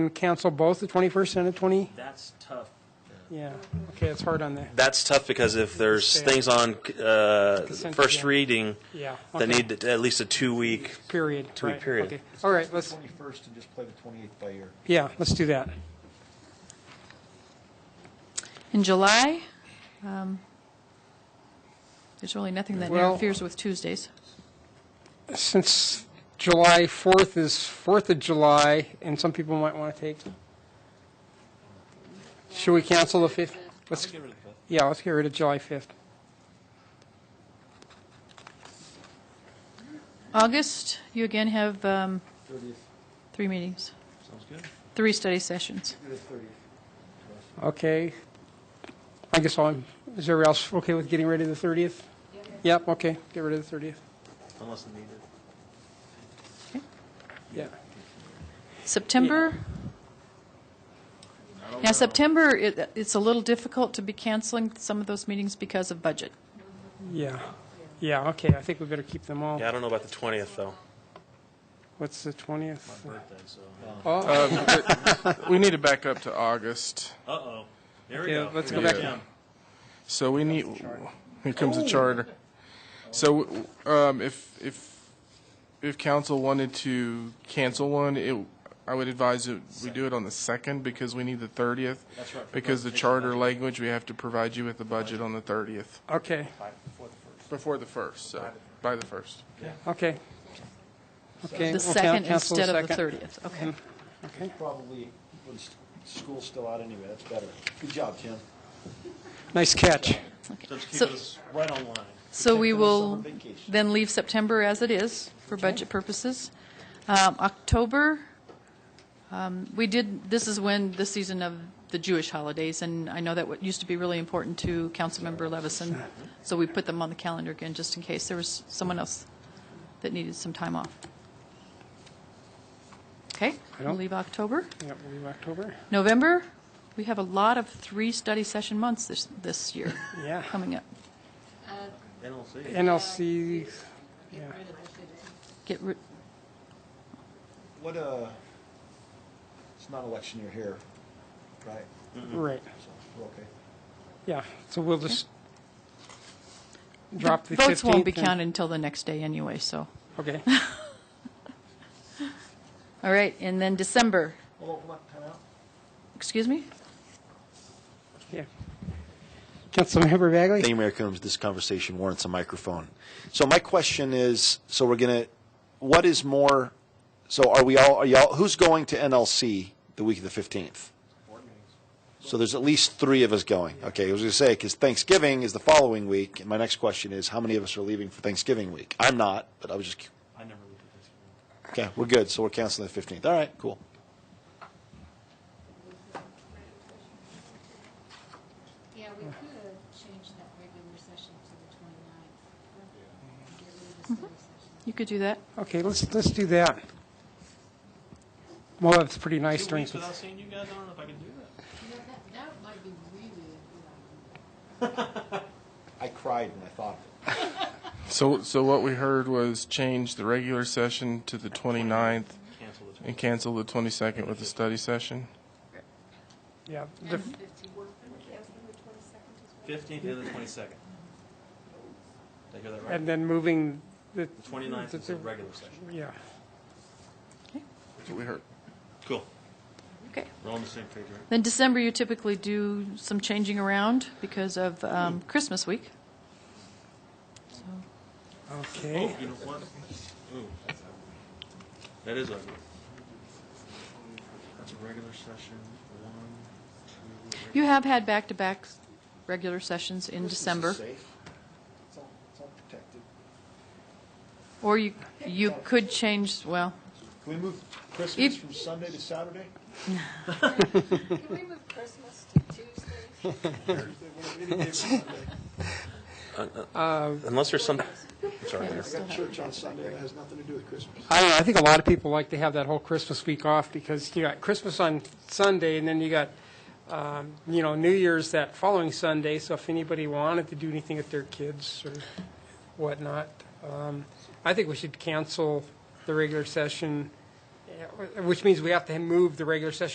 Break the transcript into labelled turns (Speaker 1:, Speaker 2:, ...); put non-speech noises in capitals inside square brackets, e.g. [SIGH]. Speaker 1: and cancel both the 21st and the 20?
Speaker 2: That's tough.
Speaker 1: Yeah, okay, it's hard on the,
Speaker 2: That's tough because if there's
Speaker 1: Understand.
Speaker 2: things on uh,
Speaker 1: Consent
Speaker 2: first
Speaker 1: agenda.
Speaker 2: reading
Speaker 1: yeah.
Speaker 2: that
Speaker 1: okay.
Speaker 2: need at least a two-week,
Speaker 1: Period.
Speaker 2: two-week
Speaker 1: right,
Speaker 2: period.
Speaker 1: okay. All right, let's,
Speaker 3: Twenty-first and just play the twenty-eighth by ear.
Speaker 1: yeah, let's do that.
Speaker 4: In July, um, there's really nothing that
Speaker 1: Well-
Speaker 4: interferes with Tuesdays.
Speaker 1: Since July 4th is 4th of July, and some people might want to take, should we cancel the 5th? Let's, yeah, let's get rid of July 5th.
Speaker 4: August, you again have um, three meetings,
Speaker 3: Sounds good.
Speaker 4: three study sessions.
Speaker 3: Do the thirtieth.
Speaker 1: Okay. I guess I'm, is everybody else okay with getting rid of the 30th? Yep, okay, get rid of the 30th.
Speaker 2: Unless needed.
Speaker 1: Yeah.
Speaker 4: September? Now, September, it- it's a little difficult to be canceling some of those meetings because of budget.
Speaker 1: Yeah, yeah, okay, I think we better keep them all.
Speaker 2: Yeah, I don't know about the 20th, though.
Speaker 1: What's the 20th?
Speaker 5: We need to back up to August.
Speaker 2: Uh-oh. There
Speaker 1: Okay, let's go back.
Speaker 5: Yeah. So we need, here comes the charter. So um, if, if, if council wanted to cancel one, it, I would advise that we do it on the second because we need the thirtieth.
Speaker 3: That's right, for
Speaker 5: Because the charter language, we have to provide you with the budget on the thirtieth,
Speaker 1: Okay,
Speaker 5: before the first, so, by the first.
Speaker 1: okay. Okay.
Speaker 4: The
Speaker 1: we'll
Speaker 4: second
Speaker 1: can- cancel
Speaker 4: instead of the
Speaker 1: second.
Speaker 4: 30th, okay.
Speaker 1: Okay,
Speaker 3: Probably when s- school's still out anyway, that's better. Good job, Tim.
Speaker 1: nice catch.
Speaker 4: So-
Speaker 2: right on line.
Speaker 4: So we
Speaker 3: Taking the summer
Speaker 4: will
Speaker 3: vacation.
Speaker 4: then leave September as it is for budget purposes. Um, October, um, we did, this is when the season of the Jewish holidays, and I know that what used to be really important to Councilmember Levison, so we put them on the calendar again, just in case there was someone else that needed some time off. Okay, we'll
Speaker 1: don't-
Speaker 4: leave October.
Speaker 1: Yep, we'll leave October.
Speaker 4: November, we have a lot of three study session months this, this year
Speaker 1: Yeah,
Speaker 4: coming up.
Speaker 1: NLC, yeah,
Speaker 4: Get rid,
Speaker 3: What, uh, it's not election year here, right?
Speaker 1: right,
Speaker 3: So, we're okay.
Speaker 1: yeah, so we'll just drop the 15th.
Speaker 4: [LAUGHS] Votes won't be
Speaker 1: and-
Speaker 4: counted until the next day anyway, so.
Speaker 1: Okay,
Speaker 4: [LAUGHS] All right, and then December,
Speaker 3: Well, what, time out?
Speaker 4: excuse me?
Speaker 1: yeah. Councilmember Bagley?
Speaker 6: Thank you, Mayor Coombs. This conversation warrants a microphone. So my question is, so we're going to, what is more, so are we all, are y'all, who's going to NLC the week of the 15th? So there's at least three of us going. Okay, I was going to say, because Thanksgiving is the following week, and my next question is, how many of us are leaving for Thanksgiving week? I'm not, but I was just,
Speaker 2: I never looked
Speaker 6: okay, we're good, so we're canceling the 15th. All right, cool.
Speaker 7: Yeah, we could change that regular session to the 29th. Get rid of the study session.
Speaker 4: You could do that.
Speaker 1: Okay, let's, let's do that. Well, that's pretty nice during,
Speaker 2: seeing you guys, I don't know if I can do that.
Speaker 7: You know, that, that might be really a good idea.
Speaker 3: I cried when I thought of it.
Speaker 5: So, so what we heard was change the regular session to the 29th and cancel the twenty-second with the study session?
Speaker 1: yeah, the-
Speaker 2: Fifteenth and the twenty-second. Did I hear that
Speaker 1: and then moving the,
Speaker 2: The twenty-ninth is the regular session.
Speaker 1: yeah.
Speaker 5: That's what we heard.
Speaker 2: Cool.
Speaker 4: Okay.
Speaker 2: We're on the same page, right?
Speaker 4: Then December, you typically do some changing around because of um, Christmas week.
Speaker 1: Okay,
Speaker 2: Oh, You know what? Ooh. That is ugly. That's a regular session, one, two.
Speaker 4: You have had back-to-back regular sessions in December,
Speaker 3: This is safe. It's all, it's all protected.
Speaker 4: or you, you could change, well,
Speaker 3: Can we move Christmas
Speaker 4: If-
Speaker 3: from Sunday to Saturday?
Speaker 8: Can we move Christmas to Tuesday?
Speaker 2: Unless there's some, sorry,
Speaker 4: yeah,
Speaker 2: Mayor.
Speaker 4: it's
Speaker 3: I
Speaker 4: still
Speaker 3: got
Speaker 4: have-
Speaker 3: church on Sunday, that has nothing to do with Christmas.
Speaker 1: I don't know, I think a lot of people like to have that whole Christmas week off because you got Christmas on Sunday and then you got, um, you know, New Year's that following Sunday, so if anybody wanted to do anything with their kids or whatnot, um, I think we should cancel the regular session, eh, which means we have to move the regular session